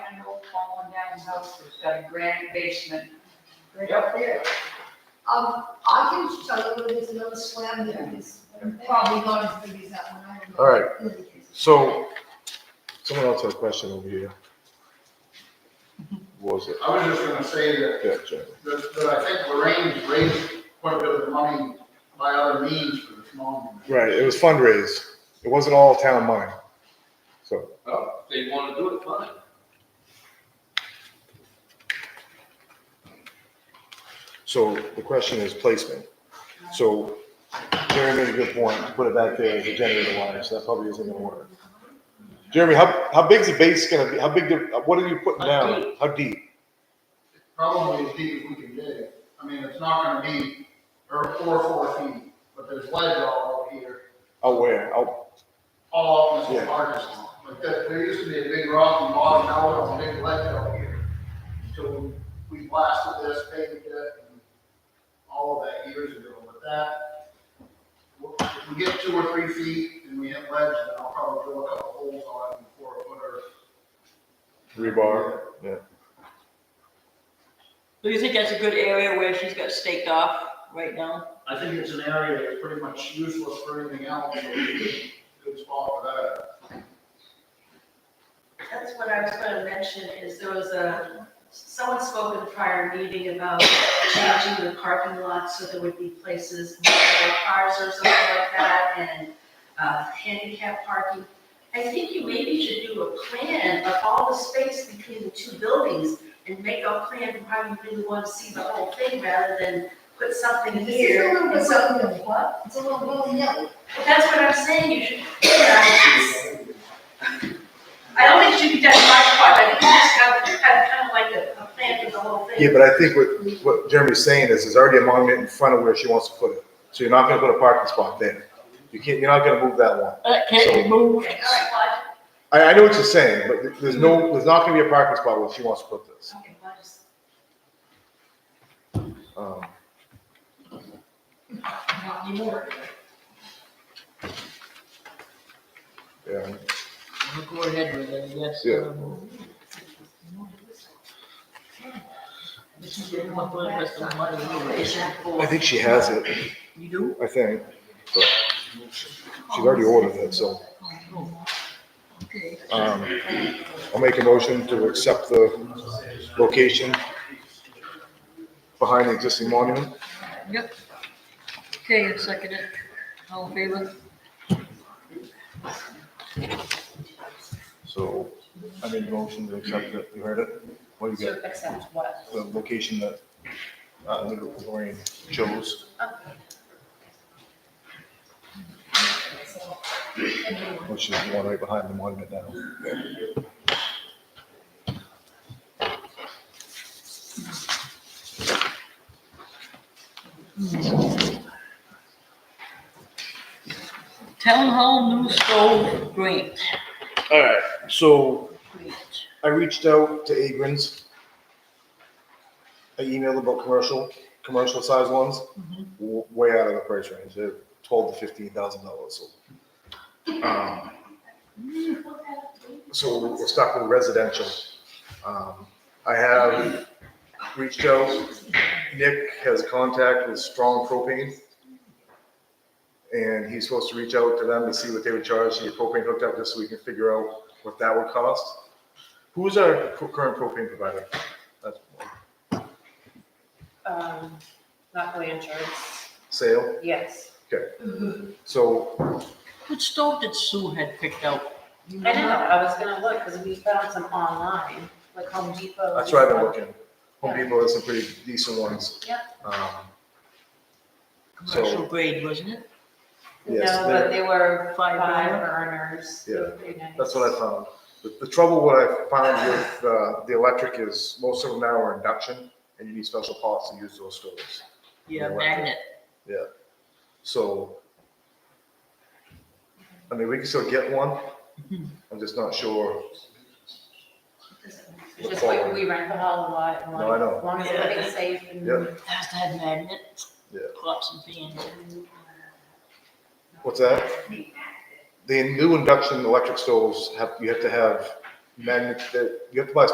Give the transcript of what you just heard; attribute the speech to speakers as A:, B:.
A: fallen down house that's got a granite basement. Right
B: Yep.
A: up there.
C: Um, I can tell you there's another swam there, it's probably not as big as that one. I don't know.
D: All right. So, someone else had a question over here. What was it?
B: I was just gonna say that
D: Yeah, Jen.
B: that, that I think Lorraine's raised quite a bit of the money by other means for this monument.
D: Right, it was fundraised. It wasn't all town money. So,
E: Well, if they wanna do it, fine.
D: so the question is placement. So Jeremy made a good point, to put it back there as a generator wire, so that probably isn't gonna work. Jeremy, how, how big's the base gonna be? How big, the- what are you putting down? How deep?
B: Probably as deep as we can dig. I mean, it's not gonna be, or four, four feet, but there's ledge all over here,
D: Out where? Out,
B: all up in
D: Yeah.
B: this parking lot. Like that, there used to be a big rock and bottom, now there's a big ledge out here. So we blasted this, paved it, and all of that years ago, but that, if we get two or three feet and we hit ledge, then I'll probably drill a couple holes on it before I put our
D: rebar? Yeah.
F: Do you think that's a good area where she's got staked off right now?
B: I think it's an area that's pretty much useless for anything else, so it's a good spot for that.
G: That's what I was gonna mention, is there was a, someone spoke at a prior meeting about changing the parking lot so there would be places for cars or something like that, and, uh, handicap parking. I think you maybe should do a plan of all the space between the two buildings and make a plan for how you really wanna see the whole thing, rather than put something
C: And this is a
G: here.
C: little
G: and
C: bit
G: some-
C: something of what? It's a little, well, yeah,
G: But That's what I'm saying, you should, you know, I don't think it should be done by part, I think you just have, you have kind of like a, a plan for the whole thing.
D: Yeah, but I think what, what Jeremy's saying is, there's already a monument in front of where she wants to put it. So you're not gonna put a parking spot there. You can't, you're not gonna move that one.
F: Uh,
D: So-
F: can't be moved.
G: Okay, all right, well,
D: I, I know what you're saying, but there- there's no, there's not gonna be a parking spot where she wants to put
G: I
D: this.
G: just, okay, well, I
D: Um,
G: just, not anymore.
D: yeah,
F: We'll Go ahead with it, yes.
D: Yeah.
F: um, This is your one for the rest of the money anyway, it's not for-
D: I think she has it,
F: You do?
D: I think. but She's already ordered it, so,
F: Oh, Okay.
D: um, I'll make a motion to accept the location behind the existing monument.
F: Yep. Okay, and second it. All in favor?
D: So I made a motion to accept it. You heard it? What do you
A: So
D: got?
A: accept what?
D: The location that, uh, Lorraine chose. Which is the one right behind the monument now.
F: Town Hall new stove grant.
D: All right, so
F: Grant.
D: I reached out to Agrins. I emailed about commercial, commercial size ones, w- way out of the price range, they're twelve to fifteen thousand dollars, so. um, So we're stuck with residential. Um, I have reached out, Nick has contact with Strong Propane. And he's supposed to reach out to them to see what they would charge to get propane hooked up, just so we can figure out what that would cost. Who's our pro- current propane provider? That's
A: Um, not really insurance.
D: Sale,
A: Yes.
G: Mm-hmm.
D: so,
F: What stove did Sue had picked out? You
A: I know, I was gonna look, because we found some online, like Home Depot.
D: that's where I've been looking. Home Depot has some pretty decent ones.
A: Yeah.
D: Um,
F: Commercial grade, wasn't it?
D: Yes,
A: No,
D: they're-
A: but they were
F: Five
A: five
F: burner?
A: burners. They were pretty nice.
D: That's what I found. The, the trouble what I found with, uh, the electric is most of them now are induction and you need special pots to use those stoves.
F: Yeah,
D: Yeah.
F: magnet.
D: So. I mean, we can still get one. I'm just not sure.
A: It's Just like we rent the hall a lot, and
D: No, I
A: like,
D: know.
A: as long as
F: Yeah.
A: everything's safe and.
D: Yeah.
F: Has to have magnet.
D: Yeah.
F: Pots and pans.
D: What's that? The new induction electric stoves have, you have to have magnet, you have to buy